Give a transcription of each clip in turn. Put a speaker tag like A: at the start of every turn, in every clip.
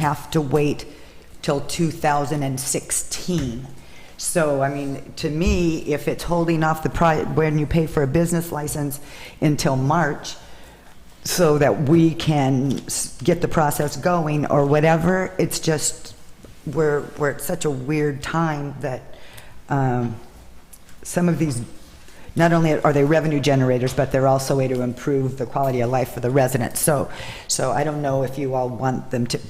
A: have to wait till 2016. So, I mean, to me, if it's holding off the, pri- when you pay for a business license until March, so that we can s- get the process going or whatever, it's just, we're, we're at such a weird time that um, some of these, not only are they revenue generators, but they're also a way to improve the quality of life for the residents. So, so I don't know if you all want them to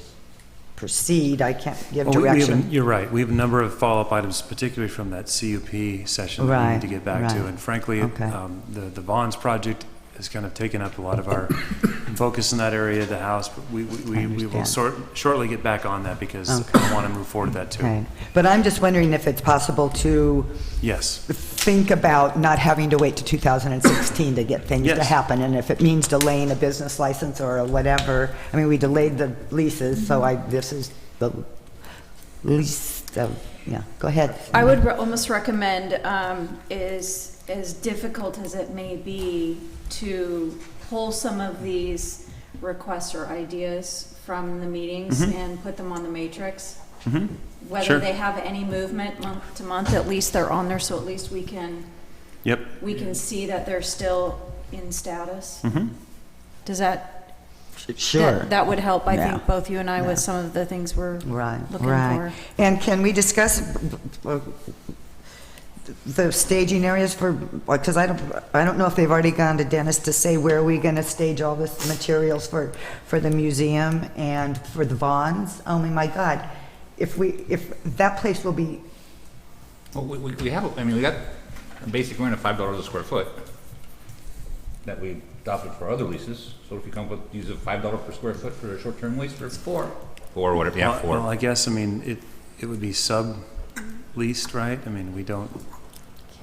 A: proceed, I can't give
B: Well, we- we have a-
A: direction.
B: You're right, we have a number of follow-up items, particularly from that CUP session that we
A: Right,
B: need to get back to.
A: right.
B: And frankly,
A: Okay.
B: um, the the Vons project has kind of taken up a lot of our focus in that area of the house, but we we- we we will
A: understand.
B: sort- shortly get back on that because I want to move forward with that too.
A: Right. But I'm just wondering if it's possible to
B: Yes,
A: think about not having to wait to 2016 to get things to
B: Yes.
A: happen, and if it means delaying a business license or whatever, I mean, we delayed the leases, so I, this is the least of, yeah, go ahead.
C: I would re- almost recommend, um, is, as difficult as it may be, to pull some of these requests or ideas from the meetings and put them on the matrix.
B: Sure.
C: Whether they have any movement month to month, at least they're on there, so at least we can,
B: yep,
C: we can see that they're still in status.
B: Mhm.
C: Does that?
A: Sure.
C: that- That would help, I
A: Yeah.
C: think, both you and I
A: Yeah.
C: with some of the things we're
A: Right,
C: looking
A: right.
C: for.
A: And can we discuss uh, the staging areas for, because I don't, I don't know if they've already gone to Dennis to say where are we going to stage all this materials for, for the museum and for the Vons? Oh, my- my God, if we, if, that place will be,
D: Well, we, we we have, I mean, we got a basic rent of five dollars a square foot that we adopted for other leases. So if you come with, use a five dollar per square foot for a short-term lease for. Four. Four, whatever, yeah,
B: Well, well,
D: four.
B: I guess, I mean, it, it would be sub-leased, right? I mean, we don't,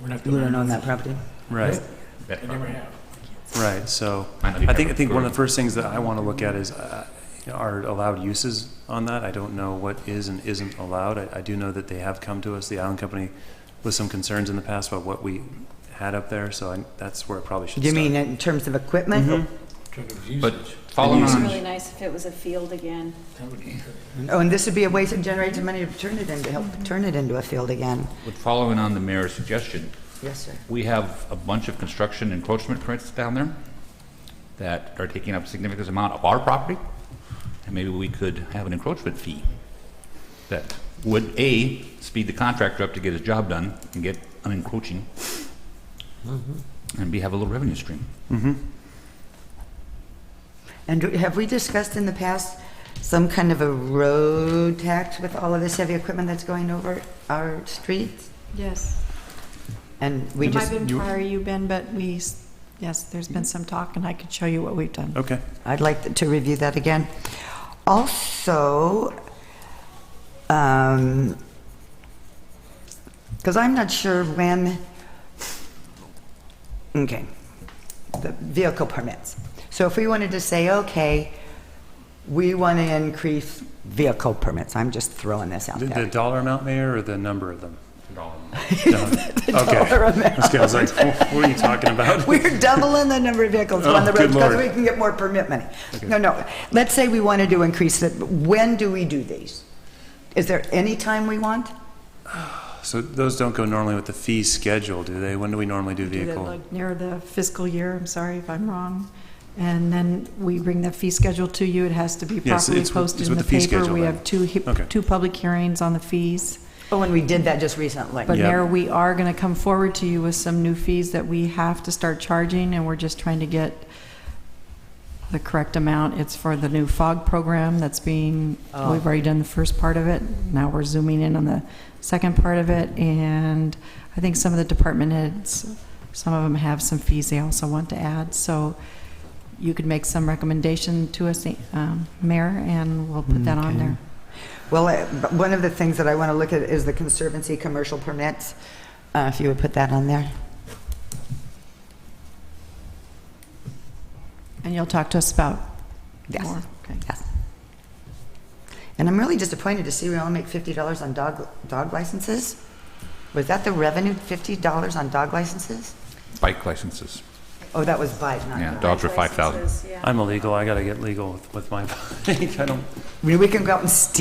E: We're not
A: you
E: doing
A: don't own
E: that.
A: that property?
B: right,
D: That's
E: I never
D: fine.
E: have.
B: right, so,
D: I know you
B: I think, I
D: have
B: think one
D: a-
B: of the first things that I want to look at is, uh, are allowed uses on that? I don't know what is and isn't allowed. I, I do know that they have come to us, the Island Company, with some concerns in the past about what we had up there, so I, that's where it probably should
A: You
B: start.
A: mean in terms of equipment?
E: Drug of
D: But
E: usage.
D: following
C: It's
D: on,
C: really nice if it was a field again.
E: That would be good.
A: Oh, and this would be a way to generate some money to turn it into, help turn it into a field again.
D: with following on the mayor's suggestion,
A: Yes, sir.
D: we have a bunch of construction encroachment permits down there that are taking up significant amount of our property. And maybe we could have an encroachment fee that would, A, speed the contractor up to get his job done and get unencroaching. And B, have a little revenue stream.
A: And do- have we discussed in the past some kind of a road tax with all of this heavy equipment that's going over our streets?
F: Yes.
A: And we
F: It might
A: just,
F: have been
B: you-
F: prior you, Ben, but we, s- yes, there's been some talk, and I could show you what we've done.
B: Okay,
A: I'd like to review that again. Also, um, because I'm not sure when, okay, the vehicle permits. So if we wanted to say, okay, we want to increase vehicle permits, I'm just throwing this out
B: the,
A: there.
B: the dollar amount, Mayor, or the number of them?
A: dollar
B: Okay,
A: amount.
B: Okay, I was like, what are you talking about?
A: We're doubling the number of vehicles on the
B: Oh, good
A: roads because
B: lord.
A: we can get more permit money. No, no, let's say we wanted to increase it, when do we do these? Is there any time we want?
B: So those don't go normally with the fee schedule, do they? When do we normally do
F: Do that,
B: vehicle?
F: like, Near the fiscal year, I'm sorry if I'm wrong. And then we bring the fee schedule to you. It has to be
B: Yes,
F: properly
B: it's with-
F: posted
B: it's
F: in
B: with
F: the
B: the fee
F: paper.
B: schedule
F: We
B: then.
F: have two, he-
B: Okay.
F: two public hearings on the fees.
A: Oh, and we did that just recently.
F: But
B: Yep.
F: Mayor, we are going to come forward to you with some new fees that we have to start charging, and we're just trying to get the correct amount. It's for the new fog program that's being,
A: Oh.
F: we've already done the first part of it. Now we're zooming in on the second part of it, and I think some of the department heads, some of them have some fees they also want to add. So you could make some recommendation to us, um, Mayor, and we'll put that on
A: Okay.
F: there.
A: Well, I- but one of the things that I want to look at is the Conservancy commercial permits, Uh, if you would put that on there.
F: And you'll talk to us about
A: Yes.
F: more. Okay.
A: Yes. And I'm really disappointed to see we only make fifty dollars on dog, dog licenses. Was that the revenue, fifty dollars on dog licenses?
D: Bike licenses.
A: Oh, that was bite, not
D: Yeah,
A: bite.
D: dogs are 5,000.
C: licenses, yeah.
B: I'm illegal, I gotta get legal with- with my bike, I don't.
A: I mean, we can go out and steal